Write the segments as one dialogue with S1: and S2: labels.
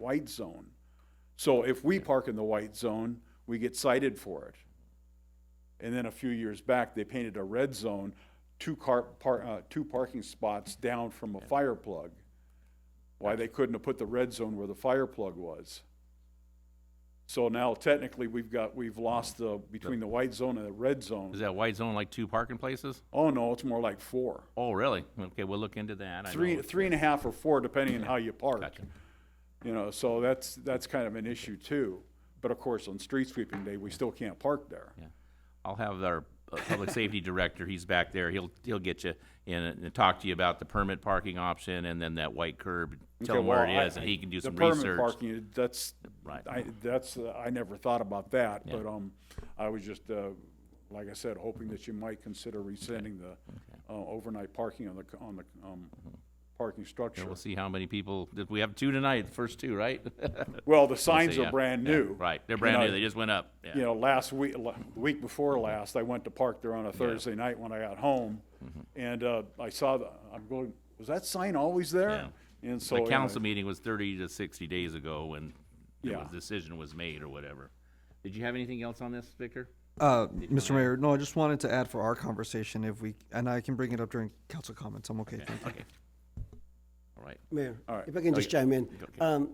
S1: white zone. So if we park in the white zone, we get cited for it. And then a few years back, they painted a red zone, two car, par, uh, two parking spots down from a fire plug. Why they couldn't have put the red zone where the fire plug was. So now technically, we've got, we've lost the, between the white zone and the red
S2: Is
S1: zone.
S2: that white zone like two parking places?
S1: Oh, no, it's more like four.
S2: Oh, really? Okay, we'll look into that. I
S1: Three,
S2: know.
S1: three and a half or four, depending on how you park.
S2: Gotcha.
S1: You know, so that's, that's kind of an issue too. But of course, on street sweeping day, we still can't park there.
S2: Yeah. I'll have our uh, public safety director, he's back there, he'll, he'll get you in and and talk to you about the permit parking option and then that white curb. Tell
S1: Okay,
S2: him where
S1: well,
S2: it
S1: I-
S2: is and he can do
S1: The
S2: some
S1: permit
S2: research.
S1: parking, that's,
S2: Right.
S1: I, that's, uh, I never thought about that,
S2: Yeah.
S1: but, um, I was just, uh, like I said, hoping that you might consider rescinding the, uh, overnight parking on the, c- on the, um,
S2: Mm-hmm.
S1: parking
S2: And
S1: structure.
S2: We'll see how many people, did we have two tonight, the first two, right?
S1: Well, the signs
S2: see,
S1: are
S2: yeah,
S1: brand
S2: yeah,
S1: new.
S2: Right, they're
S1: You
S2: brand
S1: know,
S2: new, they just went up,
S1: You
S2: yeah.
S1: know, last week, la- the week before last, I went to park there on a Thursday night when I got home,
S2: Mm-hmm.
S1: and, uh, I saw the, I'm going, was that sign always there? And so.
S2: The
S1: anyway,
S2: council meeting was thirty to sixty days ago when the
S1: Yeah.
S2: decision was made or whatever. Did you have anything else on this, Victor?
S3: Uh, Mr. Mayor, no, I just wanted to add for our conversation if we, and I can bring it up during council comments. I'm okay. Thank you.
S2: Okay. All right.
S4: Mayor,
S1: right.
S4: if I can just chime in.
S2: Okay.
S4: Um,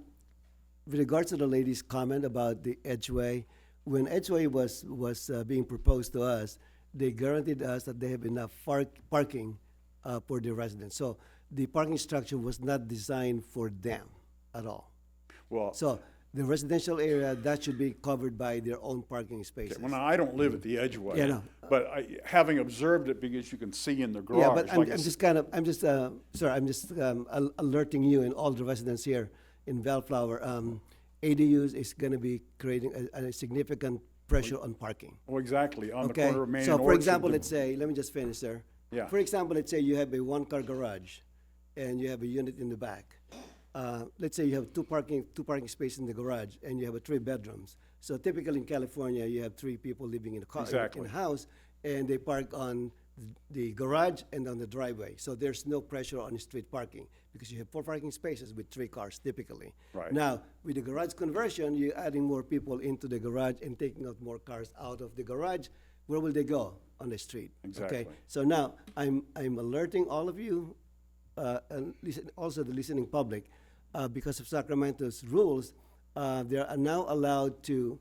S4: With regards to the lady's comment about the Edgeway, when Edgeway was, was uh, being proposed to us, they guaranteed us that they have enough far- parking uh, for the residents. So the parking structure was not designed for them at all.
S1: Well.
S4: So the residential area, that should be covered by their own parking spaces.
S1: Well, now, I don't live at the Edgeway.
S4: Yeah, no.
S1: But I, having observed it, because you can see in the garage.
S4: Yeah, but I'm,
S1: like I
S4: I'm
S1: s-
S4: just kind of, I'm just, uh, sorry, I'm just um, al- alerting you and all the residents here in Bellflower. Um, ADUs is going to be creating a, a significant pressure on parking.
S1: Well, exactly, on the
S4: Okay.
S1: corner of Main and
S4: So
S1: Orchard.
S4: for example, let's say, let me just finish, sir.
S1: Yeah.
S4: For example, let's say you have a one-car garage and you have a unit in the back. Uh, let's say you have two parking, two parking spaces in the garage and you have a three bedrooms. So typically in California, you have three people living in a car, in
S1: Exactly.
S4: a house, and they park on the garage and on the driveway. So there's no pressure on street parking because you have four parking spaces with three cars typically.
S1: Right.
S4: Now, now, with the garage conversion, you're adding more people into the garage and taking out more cars out of the garage. Where will they go? On the street.
S1: Exactly.
S4: Okay. So now I'm I'm alerting all of you, uh, and listen, also the listening public, uh, because of Sacramento's rules, uh, they are now allowed to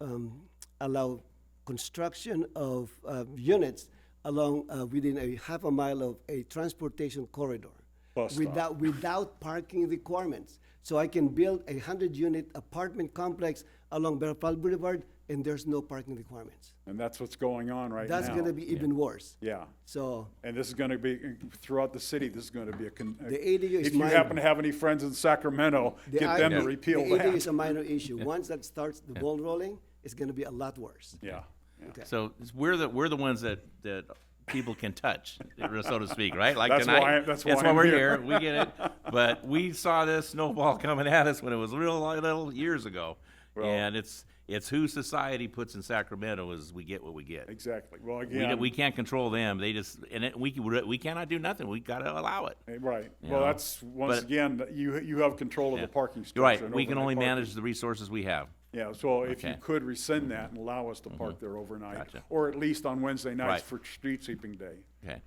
S4: um, allow construction of uh, units along uh, within a half a mile of a transportation corridor
S1: Bus stop.
S4: without without parking requirements. So I can build a hundred unit apartment complex along Bellflower Boulevard and there's no parking requirements.
S1: And that's what's going on right now.
S4: That's gonna be even worse.
S1: Yeah,
S4: So
S1: and this is gonna be, throughout the city, this is gonna be a. con- a-
S4: The ADU is
S1: If you
S4: minor.
S1: happen to have any friends in Sacramento,
S4: the
S1: get them to
S4: ID
S1: repeal
S4: The AD is a
S1: that.
S4: minor issue. Once that starts the ball rolling, it's gonna be a lot worse.
S1: Yeah, yeah.
S2: So it's- we're the, we're the ones that, that people can touch, so to speak, right? Like
S1: That's
S2: tonight.
S1: why- that's why I'm
S2: we're
S1: here.
S2: here. We get it. But we saw this snowball coming at us when it was real little years ago. And it's, it's who society puts in Sacramento is we get what we get.
S1: exactly. Well,
S2: We,
S1: again.
S2: d- we can't control them. They just, and it, we, we cannot do nothing. We gotta allow it.
S1: eh, Right, well,
S2: know,
S1: that's, once
S2: but-
S1: again, you, you have control of the parking structure.
S2: You're right.
S1: and
S2: We can
S1: overnight
S2: only
S1: parking.
S2: manage the resources we have.
S1: Yeah, so if you
S2: Okay. Mm-hmm.
S1: could rescind that and allow us to park there overnight,
S2: Gotcha.
S1: or at least on Wednesday nights
S2: Right.
S1: for street sweeping day.
S2: Okay.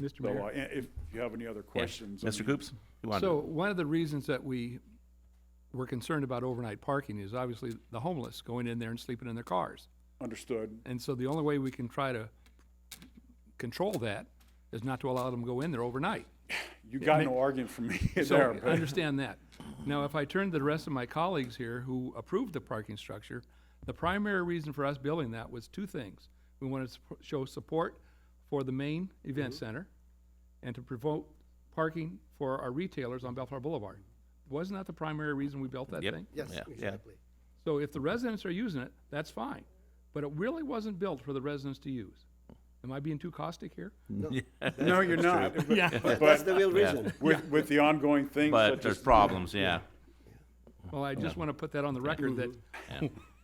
S5: Mr.
S1: So
S5: Mayor,
S1: uh, if you have any other
S2: Yeah.
S1: questions. um, I
S2: Mr.
S1: mean-
S2: Coops? you wanted to-
S5: so one of the reasons that we were concerned about overnight parking is obviously the homeless going in there and sleeping in their cars.
S1: Understood.
S5: And so the only way we can try to control that is not to allow them to go in there overnight.
S1: You got no argument from me there,
S5: So I
S1: but
S5: understand that. Now, if I turn to the rest of my colleagues here who approved the parking structure, the primary reason for us building that was two things. We wanted to supp- show support for the main event center and to promote parking for our retailers on Bellflower Boulevard. Wasn't that the primary reason we built that
S2: Yep.
S5: thing?
S4: Yes,
S2: Yeah, yeah.
S4: exactly.
S5: So if the residents are using it, that's fine. But it really wasn't built for the residents to use. Am I being too caustic here?
S1: no, you're not. But-
S4: That's
S1: But
S4: the real reason.
S1: with, with the ongoing things
S2: But
S1: such
S2: there's
S1: as,
S2: problems, yeah.
S5: Well, I just want to put that on the record that,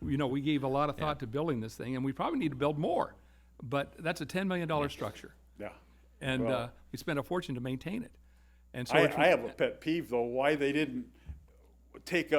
S5: you know, we gave a lot of thought to building this thing, and we probably need to build more. But that's a ten million dollar structure,
S1: yeah.
S5: and uh, we spent a fortune to maintain it. And so
S1: I,
S5: it's-
S1: I have a pet peeve though, why they didn't take